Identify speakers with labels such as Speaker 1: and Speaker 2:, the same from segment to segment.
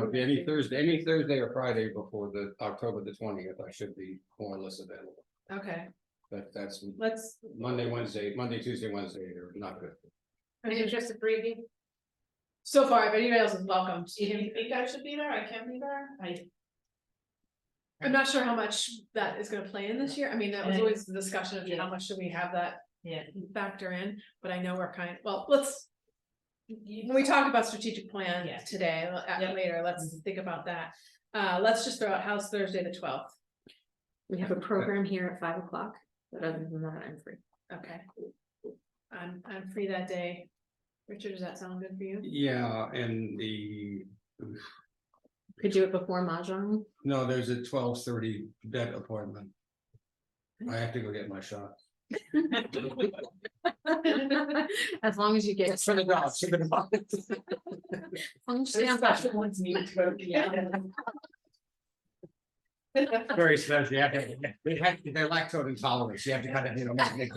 Speaker 1: would be any Thursday, any Thursday or Friday before the October the twentieth, I should be more or less available.
Speaker 2: Okay,
Speaker 1: But that's
Speaker 2: let's,
Speaker 1: Monday, Wednesday, Monday, Tuesday, Wednesday are not good.
Speaker 3: And it's just the three of you?
Speaker 2: so far, if anybody else is welcome.
Speaker 3: Do you think I should be there? I can be there? I.
Speaker 2: I'm not sure how much that is gonna play in this year. I mean, that was
Speaker 3: And-
Speaker 2: always the discussion of
Speaker 3: Yeah.
Speaker 2: how much should we have that
Speaker 3: Yeah.
Speaker 2: factor in, but I know we're kind, well, let's. When we talk about strategic plan
Speaker 3: Yeah.
Speaker 2: today, uh,
Speaker 3: Yeah.
Speaker 2: later, let's
Speaker 4: Mm-hmm.
Speaker 2: think about that. Uh, let's just throw out House Thursday the twelfth.
Speaker 4: We have a program here at five o'clock, but other than that, I'm free.
Speaker 2: Okay. I'm, I'm free that day. Richard, does that sound good for you?
Speaker 1: Yeah, and the,
Speaker 4: Could do it before Mahjong.
Speaker 1: no, there's a twelve thirty vet appointment. I have to go get my shot.
Speaker 4: As long as you get. As long as you stay on top.
Speaker 3: ones need to go.
Speaker 1: Very special, you have to, they have, they're lactose intolerant, you have to kind of, you know. make-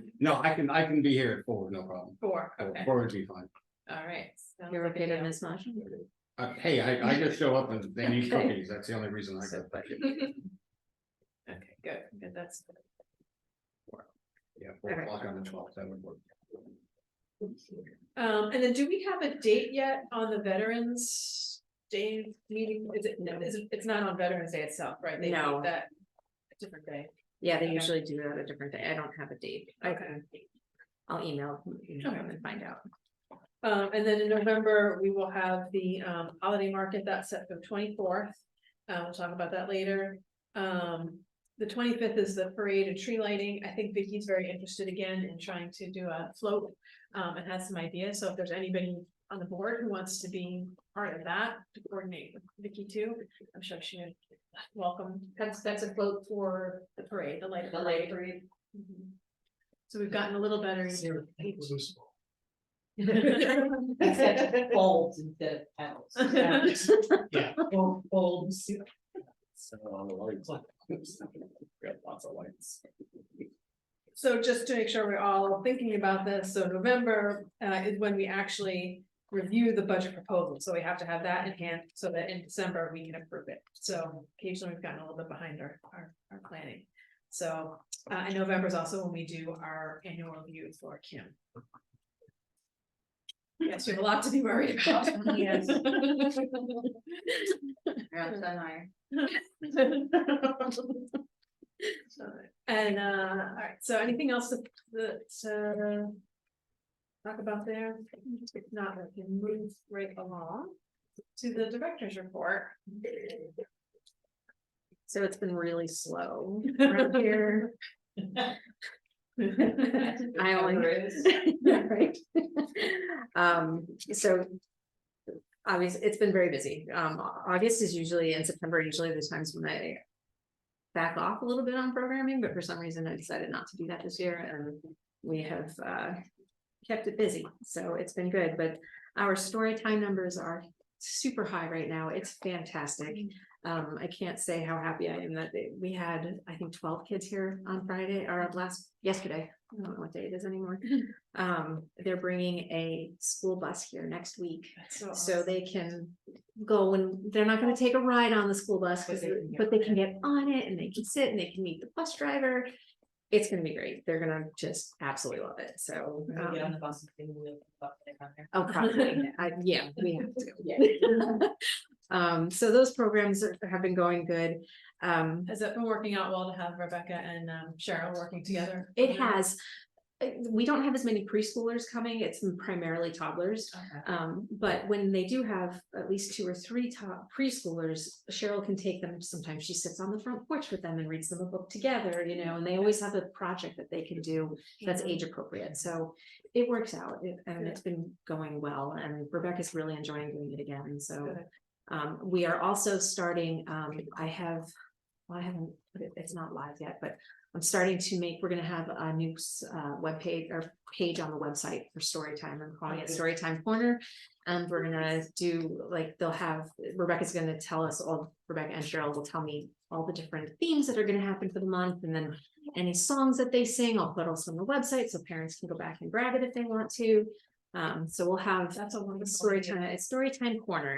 Speaker 1: No, I can, I can be here at four, no problem.
Speaker 2: Four,
Speaker 1: Four-
Speaker 2: okay,
Speaker 1: Four would be fine.
Speaker 2: all right. sounds
Speaker 4: You're
Speaker 2: like a
Speaker 4: okay to
Speaker 2: deal.
Speaker 4: miss Mahjong?
Speaker 1: Uh, hey, I, I just show up and they need
Speaker 4: Okay.
Speaker 1: cookies, that's the only reason I go.
Speaker 2: Okay, good, good, that's. good.
Speaker 1: Yeah, four
Speaker 4: Okay.
Speaker 1: o'clock on the twelfth, that would work.
Speaker 2: Um, and then do we have a date yet on the Veterans Day meeting? Is it, no, is it- it's not on Veterans Day itself, right? They
Speaker 4: No.
Speaker 2: make That a different day.
Speaker 4: Yeah, they
Speaker 2: Okay.
Speaker 4: usually do that a different day. I don't have a date. I
Speaker 2: Okay.
Speaker 4: can- I'll email you know,
Speaker 2: Okay.
Speaker 4: and find out.
Speaker 2: Um, and then in November, we will have the um holiday market that's set for the twenty-fourth. Uh, we'll talk about that later. Um, the twenty-fifth is the parade and tree lighting. I think Vicky's very interested again in trying to do a float. Um, and has some ideas. So if there's anybody on the board who wants to be part of that, to coordinate with Vicky too, I'm sure she would welcome.
Speaker 3: That's, that's a quote for
Speaker 2: The parade, the light.
Speaker 3: the light parade.
Speaker 2: Mhm. So we've gotten a little better.
Speaker 3: Except bulbs instead of petals.
Speaker 1: Yeah.
Speaker 3: Bulb- Bulbs.
Speaker 1: So on the lights. We have lots of lights.
Speaker 2: So just to make sure we're all thinking about this, so November uh is when we actually review the budget proposal, so we have to have that in hand so that in December we can approve it. So occasionally we've gotten a little bit behind our our our planning. So uh and November is also when we do our annual review for Kim. Yes, we have a lot to be worried about.
Speaker 3: Yes.
Speaker 2: And uh, alright, so anything else that, that, uh. Talk about there, if not, we can move right along to the director's report.
Speaker 4: So it's been really slow around here. I only- Right. Um, so. Obviously, it's been very busy. Um, August is usually and September are usually the times when I. Back off a little bit on programming, but for some reason I decided not to do that this year and we have uh. Kept it busy, so it's been good, but our story time numbers are super high right now. It's fantastic. Um, I can't say how happy I am that they- we had, I think, twelve kids here on Friday or last, yesterday. I don't know what day it is anymore. Um, they're bringing a school bus here next week, so they can go and they're not gonna take a ride on the school bus,
Speaker 3: But
Speaker 4: 'cause
Speaker 3: they
Speaker 4: they-
Speaker 3: can get
Speaker 4: but they can get on it and they can sit and they can meet the bus driver. It's gonna be great. They're gonna just absolutely love it, so.
Speaker 3: When we Get on
Speaker 4: um,
Speaker 3: the bus. and we will fuck it up there.
Speaker 4: Oh, probably, I, yeah, we have to.
Speaker 3: Yeah.
Speaker 4: Um, so those programs are- have been going good. Um,
Speaker 2: Has it been working out well to have Rebecca and um, Cheryl working together?
Speaker 4: it has, uh, we don't have as many preschoolers coming, it's primarily toddlers.
Speaker 2: Okay.
Speaker 4: Um, but when they do have at least two or three top preschoolers, Cheryl can take them. Sometimes she sits on the front porch with them and reads them a book together, you know, and they always have a project that they can do that's age appropriate. So it works out it- and it's been going well and Rebecca's really enjoying doing it again. So
Speaker 2: Good.
Speaker 4: um, we are also starting, um, I have, well, I haven't, put it- it's not live yet, but I'm starting to make, we're gonna have a new s- uh webpage or page on the website for Storytime. I'm calling it
Speaker 3: Okay.
Speaker 4: Storytime Corner. And we're gonna do, like, they'll have, Rebecca's gonna tell us all, Rebecca and Cheryl will tell me all the different themes that are gonna happen for the month and then any songs that they sing, I'll put also on the website, so parents can go back and grab it if they want to. Um, so we'll have
Speaker 2: That's a wonderful.
Speaker 4: story
Speaker 2: idea.
Speaker 4: time, it's story time corner